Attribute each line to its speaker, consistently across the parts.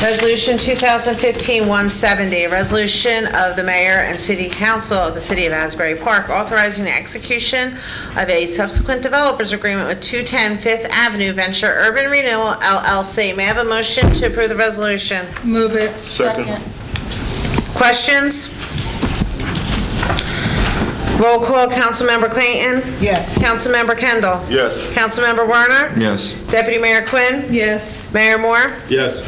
Speaker 1: Resolution 2015-170, a resolution of the mayor and city council of the city of Asbury Park authorizing the execution of a subsequent developers agreement with 210 Fifth Avenue Venture Urban Renewal LLC. May I have a motion to approve the resolution?
Speaker 2: Move it.
Speaker 3: Second.
Speaker 1: Questions? Roll call, Councilmember Clayton?
Speaker 2: Yes.
Speaker 1: Councilmember Kendall?
Speaker 3: Yes.
Speaker 1: Councilmember Werner?
Speaker 4: Yes.
Speaker 1: Deputy Mayor Quinn?
Speaker 2: Yes.
Speaker 1: Mayor Moore?
Speaker 3: Yes.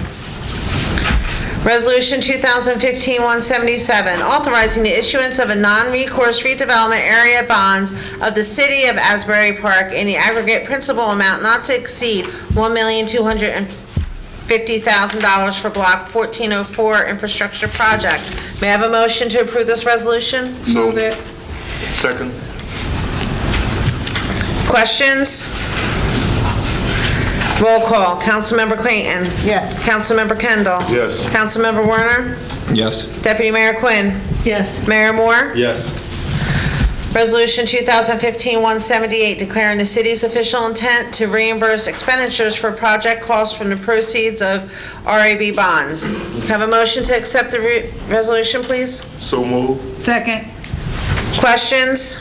Speaker 1: Resolution 2015-177, authorizing the issuance of a non-recourse redevelopment area bonds of the city of Asbury Park in the aggregate principal amount not to exceed $1,250,000 for Block 1404 Infrastructure Project. May I have a motion to approve this resolution?
Speaker 3: So-
Speaker 2: Move it.
Speaker 3: Second.
Speaker 1: Questions? Roll call. Councilmember Clayton.
Speaker 2: Yes.
Speaker 1: Councilmember Kendall.
Speaker 3: Yes.
Speaker 1: Councilmember Werner.
Speaker 4: Yes.
Speaker 1: Deputy Mayor Quinn.
Speaker 2: Yes.
Speaker 1: Mayor Moore.
Speaker 3: Yes.
Speaker 1: Resolution 2015-178, declaring the city's official intent to reimburse expenditures for project costs from the proceeds of RAB bonds. Can I Have a motion to accept the re- resolution, please?
Speaker 3: So move.
Speaker 2: Second.
Speaker 1: Questions?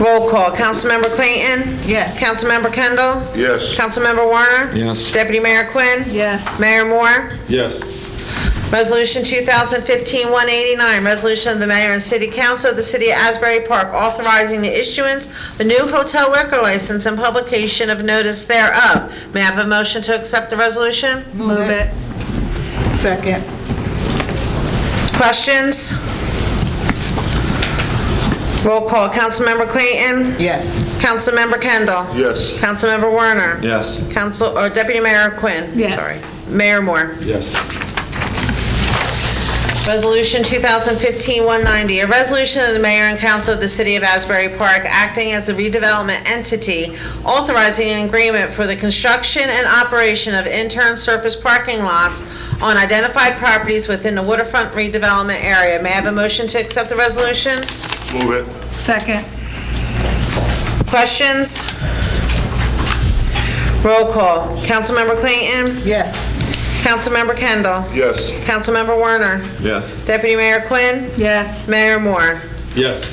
Speaker 1: Roll call. Councilmember Clayton?
Speaker 2: Yes.
Speaker 1: Councilmember Kendall?
Speaker 3: Yes.
Speaker 1: Councilmember Warner?
Speaker 4: Yes.
Speaker 1: Deputy Mayor Quinn?
Speaker 2: Yes.
Speaker 1: Mayor Moore?
Speaker 3: Yes.
Speaker 1: Resolution 2015-189, resolution of the mayor and city council of the city of Asbury Park authorizing the issuance of a new hotel liquor license and publication of notice thereof. May I have a motion to accept the resolution?
Speaker 2: Move it. Second.
Speaker 1: Questions? Roll call. Councilmember Clayton?
Speaker 2: Yes.
Speaker 1: Councilmember Kendall?
Speaker 3: Yes.
Speaker 1: Councilmember Werner?
Speaker 4: Yes.
Speaker 1: Council, or Deputy Mayor Quinn?
Speaker 2: Yes.
Speaker 1: Sorry. Mayor Moore?
Speaker 3: Yes.
Speaker 1: Resolution 2015-190, a resolution of the mayor and council of the city of Asbury Park acting as a redevelopment entity, authorizing an agreement for the construction and operation of intern surface parking lots on identified properties within the waterfront redevelopment area. May I have a motion to accept the resolution?
Speaker 3: Move it.
Speaker 2: Second.
Speaker 1: Questions? Roll call. Councilmember Clayton?
Speaker 2: Yes.
Speaker 1: Councilmember Kendall?
Speaker 3: Yes.
Speaker 1: Councilmember Werner?
Speaker 4: Yes.
Speaker 1: Deputy Mayor Quinn?
Speaker 2: Yes.
Speaker 1: Mayor Moore?
Speaker 3: Yes.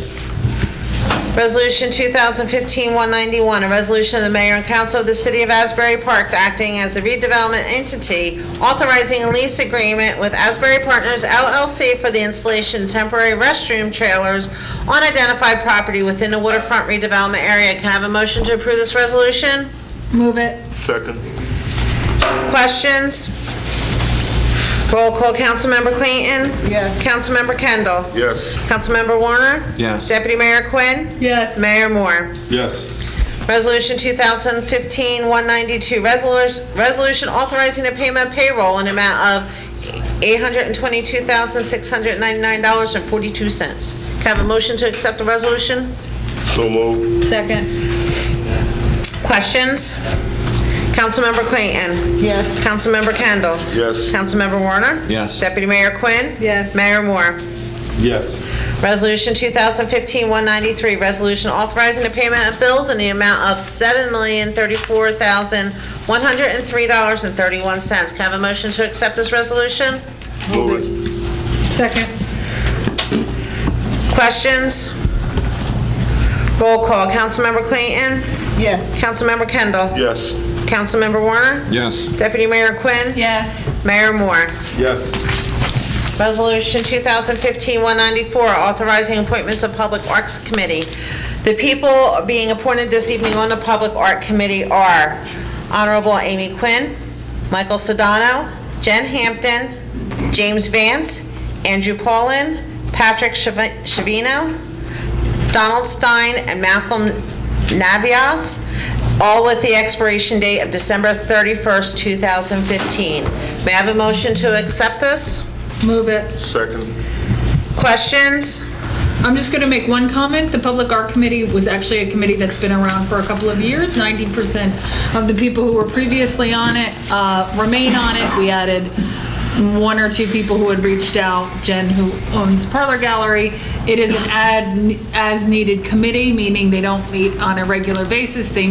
Speaker 1: Resolution 2015-191, a resolution of the mayor and council of the city of Asbury Park acting as a redevelopment entity, authorizing a lease agreement with Asbury Partners LLC for the installation of temporary restroom trailers on identified property within the waterfront redevelopment area. Can I have a motion to approve this resolution?
Speaker 2: Move it.
Speaker 3: Second.
Speaker 1: Questions? Roll call, Councilmember Clayton?
Speaker 2: Yes.
Speaker 1: Councilmember Kendall?
Speaker 3: Yes.
Speaker 1: Councilmember Warner?
Speaker 4: Yes.
Speaker 1: Deputy Mayor Quinn?
Speaker 2: Yes.
Speaker 1: Mayor Moore?
Speaker 3: Yes.
Speaker 1: Resolution 2015-192, resolu- resolution authorizing the payment of payroll in the amount of $822,699.42. Can I have a motion to accept the resolution?
Speaker 3: So move.
Speaker 2: Second.
Speaker 1: Questions? Councilmember Clayton?
Speaker 2: Yes.
Speaker 1: Councilmember Kendall?
Speaker 3: Yes.
Speaker 1: Councilmember Warner?
Speaker 4: Yes.
Speaker 1: Deputy Mayor Quinn?
Speaker 2: Yes.
Speaker 1: Mayor Moore?
Speaker 3: Yes.
Speaker 1: Resolution 2015-193, resolution authorizing the payment of bills in the amount of $7,034,103.31. Can I have a motion to accept this resolution?
Speaker 3: Move it.
Speaker 2: Second.
Speaker 1: Questions? Roll call. Councilmember Clayton?
Speaker 2: Yes.
Speaker 1: Councilmember Kendall?
Speaker 3: Yes.
Speaker 1: Councilmember Warner?
Speaker 4: Yes.
Speaker 1: Deputy Mayor Quinn?
Speaker 2: Yes.
Speaker 1: Mayor Moore?
Speaker 3: Yes.
Speaker 1: Resolution 2015-194, authorizing appointments of Public Arts Committee. The people being appointed this evening on the Public Art Committee are Honorable Amy Quinn, Michael Sedano, Jen Hampton, James Vance, Andrew Paulin, Patrick Chav- Chavino, Donald Stein, and Malcolm Navias, all with the expiration date of December 31st, 2015. May I have a motion to accept this?
Speaker 2: Move it.
Speaker 3: Second.
Speaker 1: Questions?
Speaker 5: I'm just going to make one comment. The Public Art Committee was actually a committee that's been around for a couple of years. 90% of the people who were previously on it uh, remain on it. We added one or two people who had reached out, Jen, who owns Parlor Gallery. It is an ad, as-needed committee, meaning they don't meet on a regular basis. They